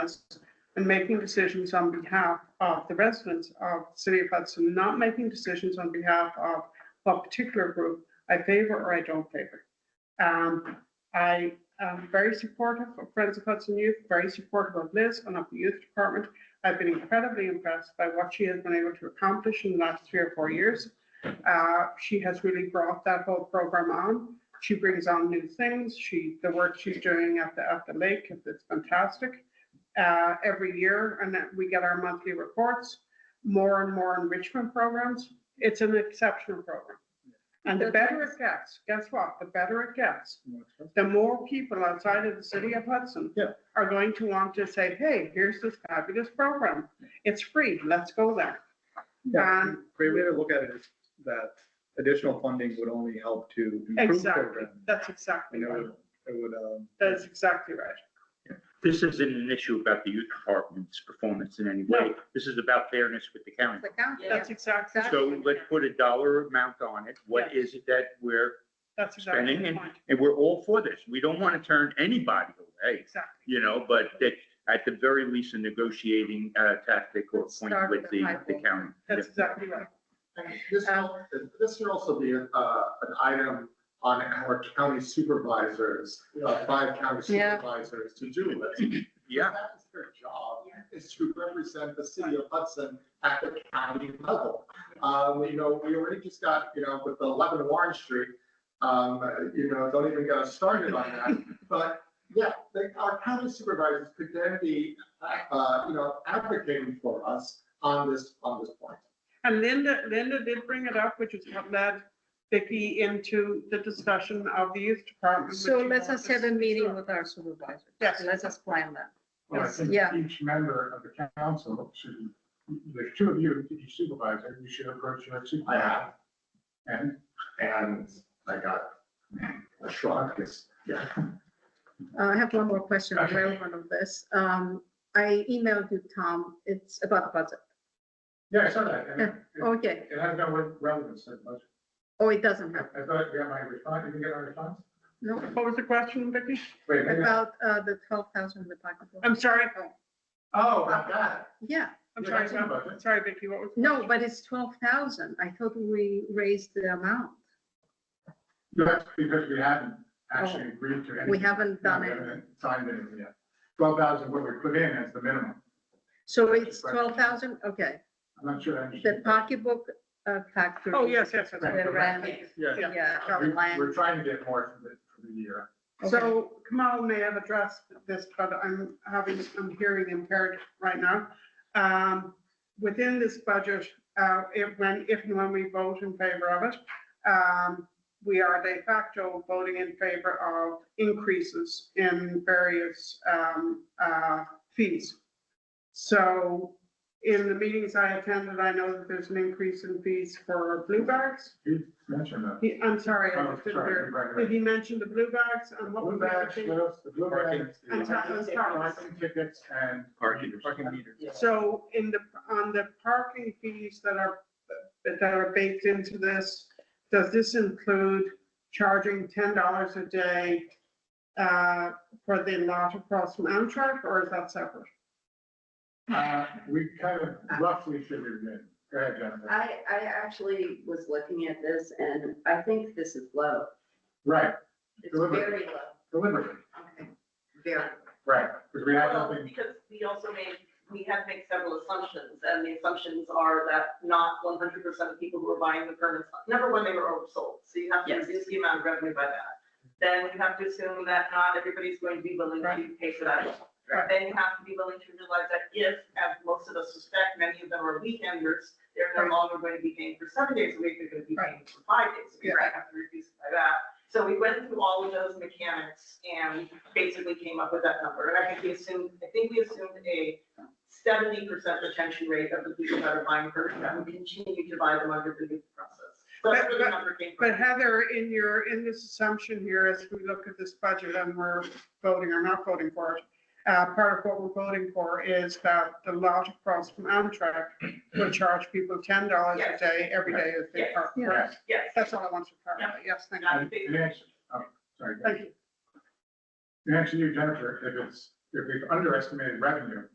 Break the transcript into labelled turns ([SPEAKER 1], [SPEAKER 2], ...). [SPEAKER 1] us and making decisions on behalf of the residents of the City of Hudson, not making decisions on behalf of a particular group I favor or I don't favor. Um, I am very supportive of Friends of Hudson Youth, very supportive of Liz and of the youth department. I've been incredibly impressed by what she has been able to accomplish in the last three or four years. Uh, She has really brought that whole program on. She brings on new things. She, the work she's doing at the, at the lake, it's it's fantastic. Uh, Every year, and that we get our monthly reports, more and more enrichment programs. It's an exceptional program. And the better it gets, guess what? The better it gets, the more people outside of the city of Hudson
[SPEAKER 2] Yeah.
[SPEAKER 1] are going to want to say, hey, here's this fabulous program. It's free. Let's go there.
[SPEAKER 2] Yeah,
[SPEAKER 1] Um,
[SPEAKER 2] great way to look at it is that additional funding would only help to improve
[SPEAKER 1] Exactly.
[SPEAKER 2] program.
[SPEAKER 1] That's
[SPEAKER 2] You
[SPEAKER 1] exactly
[SPEAKER 2] know,
[SPEAKER 1] right.
[SPEAKER 2] it would, um.
[SPEAKER 1] That's exactly right.
[SPEAKER 3] This isn't an issue about the youth department's performance in any way. This is about fairness with the county.
[SPEAKER 4] The county,
[SPEAKER 1] That's exactly,
[SPEAKER 3] So let's put a dollar amount on it. What is it that we're,
[SPEAKER 1] that's exactly
[SPEAKER 3] Spending
[SPEAKER 1] the
[SPEAKER 3] and-
[SPEAKER 1] point.
[SPEAKER 3] and we're all for this. We don't want to turn anybody away,
[SPEAKER 1] Exactly.
[SPEAKER 3] you know, but that at the very least, a negotiating uh, tactic or point
[SPEAKER 4] Start
[SPEAKER 3] with
[SPEAKER 4] with a
[SPEAKER 3] the,
[SPEAKER 4] high
[SPEAKER 3] the
[SPEAKER 4] ball.
[SPEAKER 3] county.
[SPEAKER 1] That's exactly right.
[SPEAKER 5] And This, al- this should also be uh, an item on our county supervisors, uh, five county
[SPEAKER 4] Yeah.
[SPEAKER 5] supervisors to do list.
[SPEAKER 3] Yeah,
[SPEAKER 5] That is their job, is to represent the city of Hudson at the county level. Um, You know, we already just got, you know, with the 11 Warren Street, um, you know, don't even get us started on that. But yeah, they- our county supervisors could then be, uh, you know, advocating for us on this, on this point.
[SPEAKER 1] And Linda, Linda did bring it up, which is what led Vicky into the discussion of the youth department.
[SPEAKER 4] So
[SPEAKER 1] which
[SPEAKER 4] let
[SPEAKER 1] you
[SPEAKER 4] us
[SPEAKER 1] know
[SPEAKER 4] have a
[SPEAKER 1] is-
[SPEAKER 4] meeting with our supervisor.
[SPEAKER 1] Yes.
[SPEAKER 4] Let us plan that.
[SPEAKER 6] Well, I
[SPEAKER 4] Yes,
[SPEAKER 6] think
[SPEAKER 4] yeah.
[SPEAKER 6] each member of the council should, there's two of you, each supervisor, you should approach your
[SPEAKER 5] I have
[SPEAKER 6] supervisor. And,
[SPEAKER 5] and I got a shrug, because
[SPEAKER 4] Uh, I have one more question
[SPEAKER 6] Okay.
[SPEAKER 4] relevant of this. Um, I emailed you, Tom, it's about the budget.
[SPEAKER 6] yeah, I saw that. and it-
[SPEAKER 4] Okay,
[SPEAKER 6] It has no relevance that much.
[SPEAKER 4] oh, it doesn't have,
[SPEAKER 6] I thought you got my response, did you get my response?
[SPEAKER 4] no,
[SPEAKER 1] What was the question, Vicky?
[SPEAKER 6] Wait, a minute.
[SPEAKER 4] about, uh, the twelve thousand in the pocketbook.
[SPEAKER 1] I'm sorry,
[SPEAKER 4] Uh,
[SPEAKER 5] oh, about that.
[SPEAKER 4] Yeah,
[SPEAKER 1] I'm
[SPEAKER 6] Yeah,
[SPEAKER 1] sorry,
[SPEAKER 6] that's about
[SPEAKER 1] I'm
[SPEAKER 6] it.
[SPEAKER 1] sorry, Vicky, what was? the
[SPEAKER 4] no,
[SPEAKER 1] question?
[SPEAKER 4] but it's twelve thousand. I thought we raised the amount.
[SPEAKER 6] that's because we haven't actually agreed to anything.
[SPEAKER 4] Oh. We haven't done
[SPEAKER 6] We
[SPEAKER 4] it.
[SPEAKER 6] haven't Signed anything yet. Twelve thousand, what we put in is the minimum.
[SPEAKER 4] So it's twelve thousand, okay.
[SPEAKER 6] I'm not sure I
[SPEAKER 4] The
[SPEAKER 6] understand.
[SPEAKER 4] pocketbook uh, factor.
[SPEAKER 1] Oh, yes, yes, yes,
[SPEAKER 4] The
[SPEAKER 1] yes.
[SPEAKER 4] rent,
[SPEAKER 6] Yeah.
[SPEAKER 1] yeah.
[SPEAKER 4] yeah,
[SPEAKER 6] We-
[SPEAKER 4] the land.
[SPEAKER 6] We're trying to get more for the, for the year.
[SPEAKER 1] So Kamal may have addressed this, but I'm having, I'm hearing impaired right now. Um, Within this budget, uh, if, when, if and when we vote in favor of it, um, we are de facto voting in favor of increases in various um, uh, fees. So in the meetings I attended, I know that there's an increase in fees for blue bags.
[SPEAKER 6] You mentioned that.
[SPEAKER 1] He- I'm sorry, I
[SPEAKER 6] Oh,
[SPEAKER 1] just didn't
[SPEAKER 6] sorry,
[SPEAKER 1] hear.
[SPEAKER 6] right, right.
[SPEAKER 1] Did he mention the blue bags and what was
[SPEAKER 6] Blue
[SPEAKER 1] the other
[SPEAKER 6] bags,
[SPEAKER 1] thing?
[SPEAKER 6] those, the blue
[SPEAKER 5] Parking.
[SPEAKER 6] bags.
[SPEAKER 1] I'm sorry, I'm sorry.
[SPEAKER 6] Parking tickets and.
[SPEAKER 3] Parking.
[SPEAKER 6] Parking meters.
[SPEAKER 1] So in the, on the parking fees that are, that are baked into this, does this include charging ten dollars a day uh, for the lot across from Amtrak, or is that separate?
[SPEAKER 6] Uh, we kind of roughly figured it in. Go ahead, Jennifer.
[SPEAKER 7] I, I actually was looking at this and I think this is low.
[SPEAKER 6] Right,
[SPEAKER 7] It's
[SPEAKER 6] Deliberate.
[SPEAKER 7] very low.
[SPEAKER 6] deliberately,
[SPEAKER 7] Okay, Very.
[SPEAKER 6] right, because we had
[SPEAKER 8] Well,
[SPEAKER 6] nothing,
[SPEAKER 8] because we also made, we had to make several assumptions, and the assumptions are that not one hundred percent of people who are buying the permits, number one, they were oversold, so you have to
[SPEAKER 7] Yes.
[SPEAKER 8] reduce the amount of revenue by that. Then you have to assume that not everybody's going to be willing to
[SPEAKER 1] Right.
[SPEAKER 8] pay for that.
[SPEAKER 1] Right.
[SPEAKER 8] Then you have to be willing to realize that if, as most of us suspect, many of them are weekenders, they're
[SPEAKER 1] Right.
[SPEAKER 8] no longer going to be paying for seven days a week, they're going to be paying for five days a week,
[SPEAKER 1] Yeah.
[SPEAKER 8] I have to reduce it by that. So we went through all of those mechanics and basically came up with that number. And I think we assumed, I think we assumed a seventy percent retention rate of the people that are buying first and we continue to buy them under the new process. So that's where the number came from.
[SPEAKER 1] But Heather, in your, in this assumption here, as we look at this budget and we're voting or not voting for it, uh, part of what we're voting for is that the lot across from Amtrak will charge people ten dollars a
[SPEAKER 8] Yes.
[SPEAKER 1] day every day as they
[SPEAKER 8] Yes.
[SPEAKER 1] park.
[SPEAKER 4] Yeah.
[SPEAKER 1] correct?
[SPEAKER 8] Yes.
[SPEAKER 1] That's all I want to clarify. Yes, thank you.
[SPEAKER 6] and it answers, oh, sorry. go ahead.
[SPEAKER 1] Thank you.
[SPEAKER 6] It answers you, Jennifer, if it's if we've underestimated revenue,